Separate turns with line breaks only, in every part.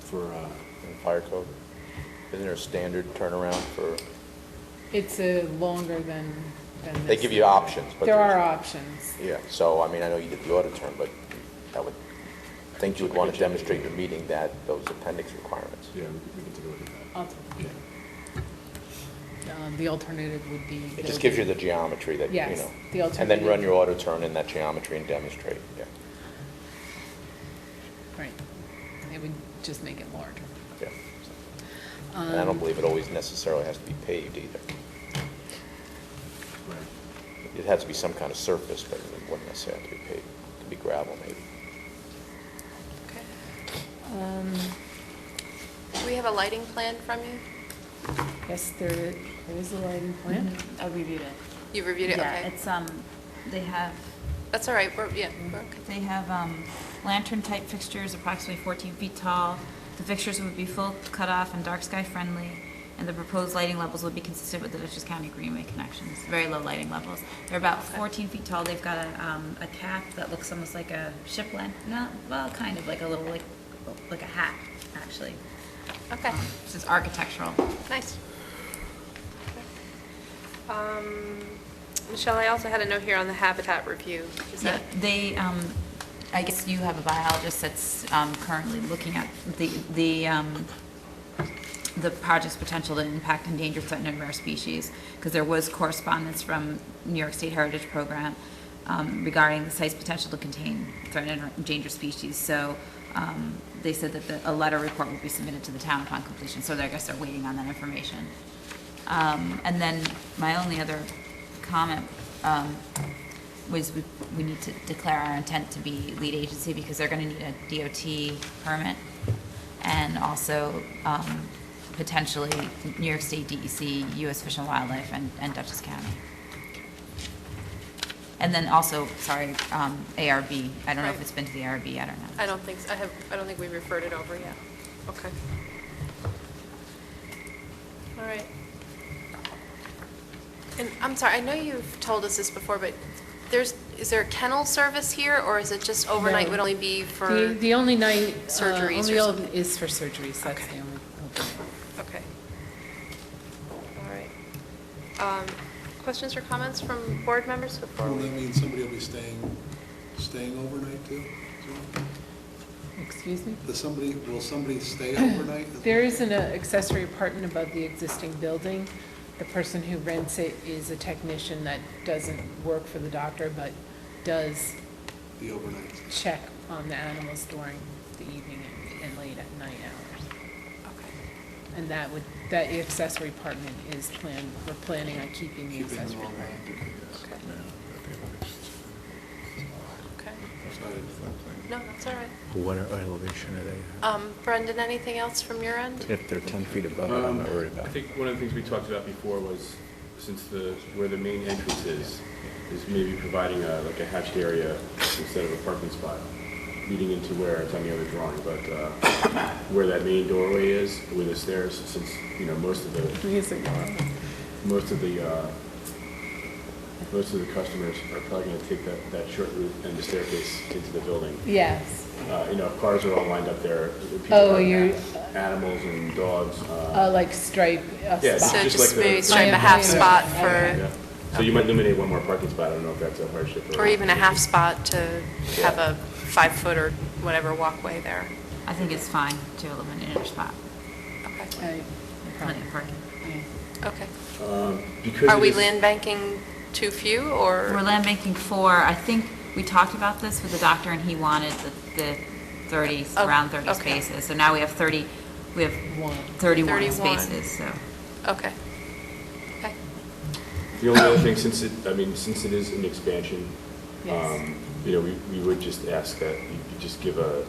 for, uh,
in fire code? Isn't there a standard turnaround for,
It's a longer than, than this.
they give you options, but.
There
there's-
are options.
Yeah, so, I mean, I know you did the audit term, but I would think you would want to demonstrate you're meeting that, those appendix requirements.
yeah, we we can take a look at
Alt-
that. Yeah.
um, The alternative would be.
It just gives you the geometry that, you know.
Yes, the
And then run
alternative.
your audit turn in that geometry and demonstrate, yeah,
Right. It would just make it larger.
yeah. And I
Um,
don't believe it always necessarily has to be paved either.
Right.
It has to be some kind of surface, but it wouldn't necessarily have to be paved. It could be gravel maybe.
Okay.
um,
Do we have a lighting plan from you?
Yes, there there is a lighting plan.
Mm-hmm.
Mhm, I reviewed it.
You've reviewed it,
Yeah,
okay.
it's, um, they have,
That's all right, we're, yeah, we're okay.
they have um, lantern-type fixtures approximately 14 feet tall. The fixtures would be full cutoff and dark sky friendly, and the proposed lighting levels would be consistent with the Dutchess County Greenway connections, very low lighting levels. They're about 14 feet tall, they've got a, um, a cap that looks almost like a ship lamp, not, well, kind of like a little, like, like a hat, actually.
Okay,
Um, This is architectural.
nice. Um, Michelle, I also had a note here on the habitat review. Is
Yeah,
that,
they, um, I guess you have a biologist that's, um, currently looking at the, the, um, the project's potential to impact endangered, threatened, and rare species, because there was correspondence from New York State Heritage Program, um, regarding the site's potential to contain threatened and endangered species, so, um, they said that the, a letter report would be submitted to the town upon completion, so I guess they're waiting on that information. Um, and then my only other comment, um, was we, we need to declare our intent to be lead agency because they're gonna need a DOT permit and also, um, potentially New York State E DEC, US Fish and Wildlife, and, and Dutchess County. And then also, sorry, um, ARB. I don't know if
Right.
it's been to the ARB, I don't know.
I don't think, s- I have, I don't think we referred it over yet. Okay. All right. And I'm sorry, I know you've told us this before, but there's, is there a kennel service here, or is it just overnight
No.
would only be for?
The, the only night. uh,
Surgeries or
only
something.
Is for surgeries, that's
Okay.
the only. open night.
Okay. All right. Um, Questions or comments from board members before
Well,
we?
that means somebody will be staying, staying overnight too? So,
Excuse me?
Does somebody, will somebody stay overnight?
There is an uh, accessory apartment above the existing building. The person who rents it is a technician that doesn't work for the doctor, but does
The overnight.
check on the animals during the evening and- and late at night hours.
Okay.
And that would, that accessory apartment is planned, we're planning on keeping the
Keeping them
accessory
all
apartment.
Okay. Okay.
overnight.
No, that's all right.
What elevation are they
Um, Brendan, anything else from your end?
at? If they're 10 feet above it, I'm not worried about
Um, I
it.
think one of the things we talked about before was, since the, where the main entrance is, is maybe providing a, like a hatched area instead of a parking spot, leading into where, it's on the other drawing, but, uh, where that main doorway is, where the stairs, since, you know, most of the uh,
Please ignore.
most of the, uh, most of the customers are probably going to take that, that short route and the staircase into the building.
Yes.
Uh, You know, if cars are all lined up there. people
Oh,
have
you're-
Animals and dogs. uh,
Uh, like stripe,
Yeah,
a
it's
So
spot.
just
just
like the-
maybe stripe a half spot for,
yeah. So you might eliminate one more parking spot, I don't know if that's a hardship or.
or even a half spot to have a five-foot or whatever walkway there.
I think it's fine to eliminate a spot,
Okay.
Right,
plenty of parking.
yeah.
Okay.
Because
Are
it
we
is-
land banking too few,
We're
or?
land banking four, I think we talked about this with the doctor, and he wanted the, the 30,
Oh,
around 30
okay.
spaces. So now we have 30, we have
One.
31
31.
spaces, so.
Okay. Okay.
The only other thing, since it, I mean, since it is an expansion,
Yes.
um, you know, we, we would just ask that you could just give a,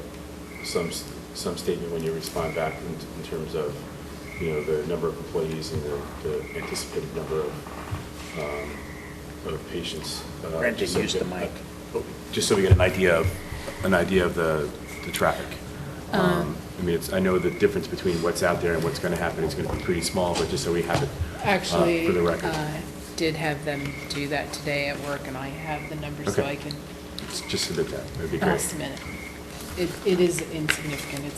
some, s- some statement when you respond back in, in terms of, you know, the number of employees and the, the anticipated number of, um, of patients. uh,
Brendan,
just so we
use the
get-
mic.
uh, Just so we get an idea of, an idea of the, the traffic.
Uh-huh.
Um, I mean, it's, I know the difference between what's out there and what's gonna happen is gonna be pretty small, but just so we have it. uh,
Actually, uh,
For the record,
I did have them do that today at work, and I have the numbers so
Okay.
I can
just submit that, that'd be great.
estimate it. It, it is insignificant, it's